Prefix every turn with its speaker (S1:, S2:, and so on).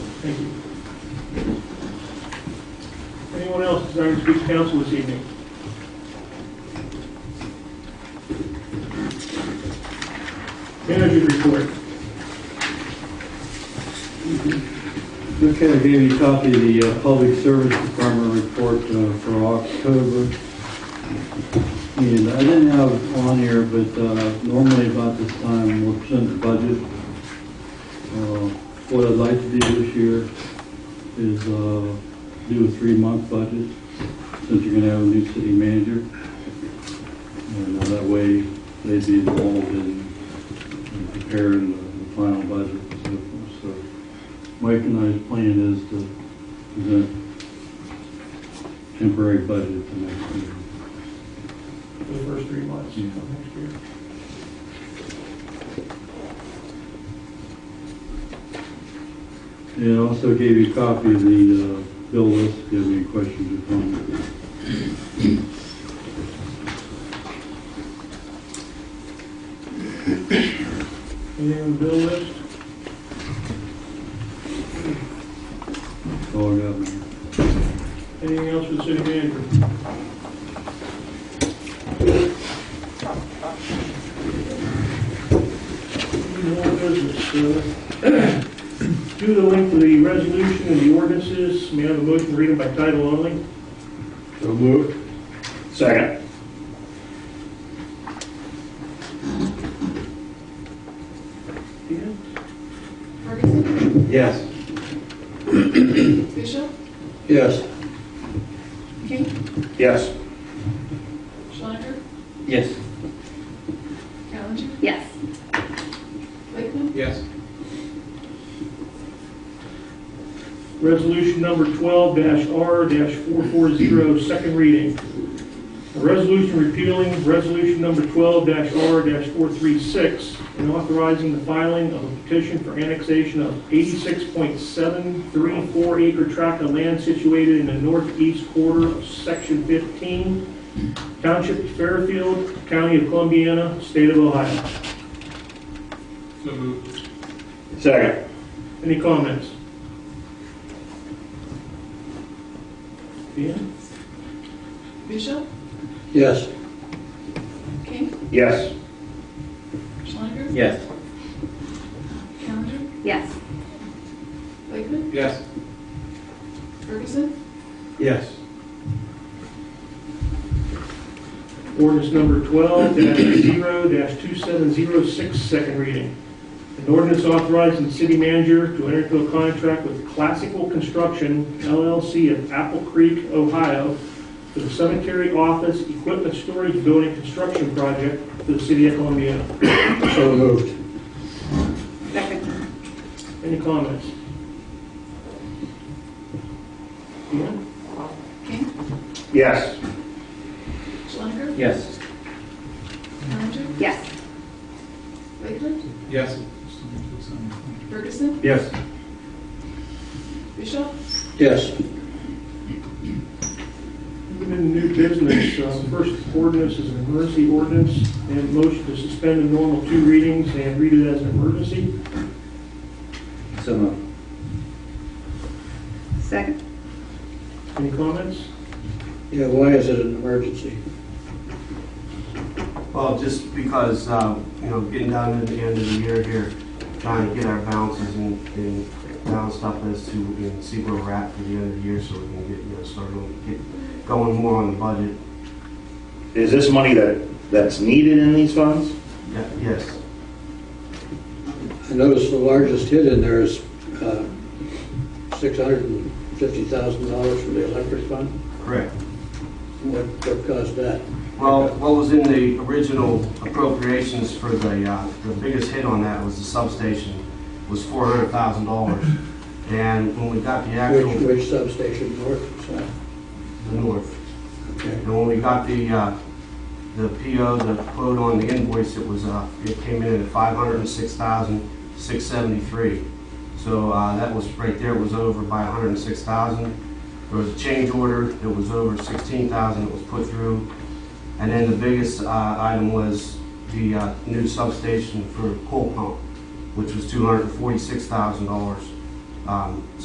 S1: Thank you. Anyone else desiring to speak to council this evening? Manager report.
S2: Mr. Kelly gave you a copy of the uh, Public Service Department report uh, for October. And I didn't have it on here, but uh, normally about this time, we'll present the budget. Uh, What I'd like to do this year is uh, do a three-month budget, since you're going to have a new city manager. And uh, that way, they'd be involved in in preparing the- the final budget and so forth. So Mike and I's plan is to present temporary budget at the next meeting.
S1: for the first three months
S2: Yeah.
S1: of next year.
S2: And I also gave you a copy of the uh, bill list, if you have any questions or comments.
S1: Anything on the bill list?
S2: That's all I got, Mayor.
S1: Anything else for the city manager? Any more business? Uh, Due to link to the resolution and the ordinances, may I have a motion to read them by title only?
S2: So moved.
S3: Second.
S1: Dan?
S4: Ferguson,
S3: Yes.
S4: Bishop,
S3: Yes.
S4: King,
S3: Yes.
S4: Schlenker,
S3: Yes.
S4: Callender,
S5: Yes.
S4: Lakeman,
S3: Yes.
S1: Resolution number 12-R-440, second reading. A resolution repealing resolution number 12-R-436 and authorizing the filing of a petition for annexation of 86.734 acre tract of land situated in the northeast quarter of Section 15, Township of Fairfield, County of Columbiana, State of Ohio.
S3: Second.
S1: Any comments? Dan?
S4: Bishop,
S3: Yes.
S4: King,
S3: Yes.
S4: Schlenker,
S3: Yes.
S4: Callender,
S5: Yes.
S4: Lakeman,
S3: Yes.
S4: Ferguson,
S3: Yes.
S1: Ordinance number 12-0-27066, second reading. An ordinance authorizing the city manager to enter into a contract with Classical Construction LLC of Apple Creek, Ohio, for the cemetery office equipment storage building construction project for the city of Columbia.
S3: So moved.
S5: Second.
S1: Any comments? Dan?
S4: King,
S3: Yes.
S4: Schlenker,
S3: Yes.
S4: Callender,
S5: Yes.
S4: Lakeman,
S3: Yes.
S4: Ferguson,
S3: Yes.
S4: Bishop,
S3: Yes.
S1: Moving into new business, uh, the first ordinance is an emergency ordinance, and motion to suspend the normal two readings and read it as an emergency.
S3: So moved.
S5: Second.
S1: Any comments?
S3: Yeah, why is it an emergency?
S6: Well, just because, uh, you know, getting down to the end of the year here, trying to get our balances and, and balance up as to, and see where we're at for the end of the year so we can get, you know, start going, get going more on the budget.
S7: Is this money that, that's needed in these funds?
S6: Yeah, Yes,
S8: I noticed the largest hit in there is uh, $650,000 for the electric fund.
S6: correct.
S8: What what caused that?
S6: Well, what was in the original appropriations for the, uh, the biggest hit on that was the substation, was four hundred thousand dollars. And when we got the actual,
S8: Which
S6: the
S8: which substation, north or south?
S6: north,
S8: Okay.
S6: And when we got the, uh, the PO, the quote on the invoice, it was, uh, it came in at five hundred and six thousand, six seventy-three. So, uh, that was, right there was over by hundred and six thousand. There was a change order, that was over sixteen thousand that was put through. And then the biggest, uh, item was the, uh, new substation for coal pump, which was two hundred and forty-six thousand dollars. Um,